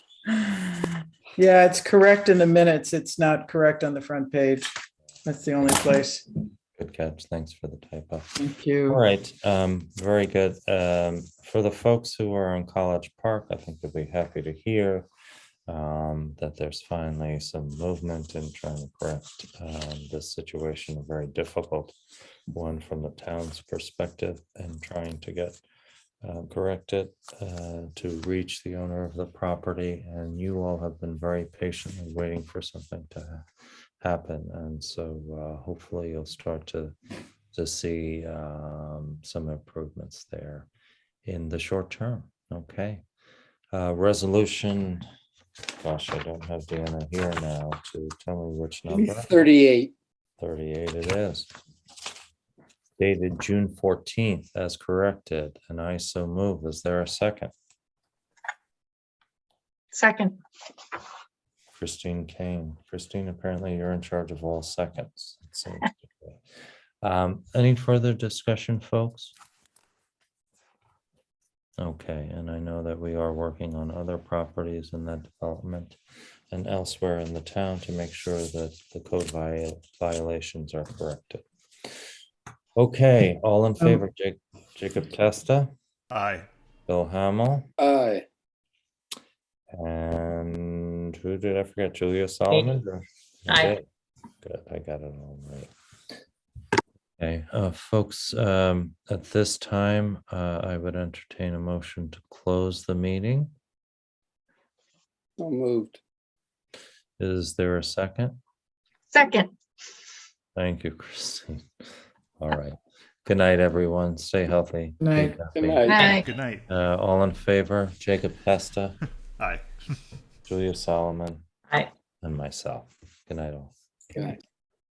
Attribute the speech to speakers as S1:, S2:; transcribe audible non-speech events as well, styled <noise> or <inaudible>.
S1: Yeah, it's correct in the minutes. It's not correct on the front page. That's the only place.
S2: Good catch. Thanks for the typo.
S1: Thank
S2: All
S1: you.
S2: right, um, very good. Um, for the folks who are on College Park, I think they'll be happy to hear um, that there's finally some movement in trying to correct um, this situation, a very difficult one from the town's perspective and trying to get uh, corrected uh, to reach the owner of the property. And you all have been very patiently waiting for something to ha- happen. And so uh, hopefully you'll start to to see um, some improvements there in the short term. Okay. Uh, Resolution, gosh, I don't have Deanna here now to tell me which number.
S3: Thirty-eight.
S2: 38 it is. Dated June 14th as corrected, and I so move. Is there a second?
S4: Second,
S2: Christine Kane. Christine, apparently you're in charge of all seconds. it seems to be. Um, Any further discussion, folks? Okay, and I know that we are working on other properties in that development and elsewhere in the town to make sure that the code vi- violations are corrected. Okay, all in favor, Ja- Jacob Testa,
S5: Aye.
S2: Bill Hamel,
S3: Aye.
S2: and who did I forget? Julia Solomon? or- was
S4: Aye.
S2: it? Good, I got it all right. Okay, uh, folks, um, at this time, uh, I would entertain a motion to close the meeting.
S3: So moved.
S2: Is there a second?
S4: second.
S2: Thank you, <laughs> Christine. All right. Good night, everyone. Stay healthy. be
S1: Night.
S3: Good
S2: happy.
S3: night.
S4: Aye.
S5: Good night.
S2: Uh, all in favor, Jacob Pesta,
S5: Aye.
S2: Julia Solomon.
S4: Aye.
S2: And myself. Good night all.
S3: Good night.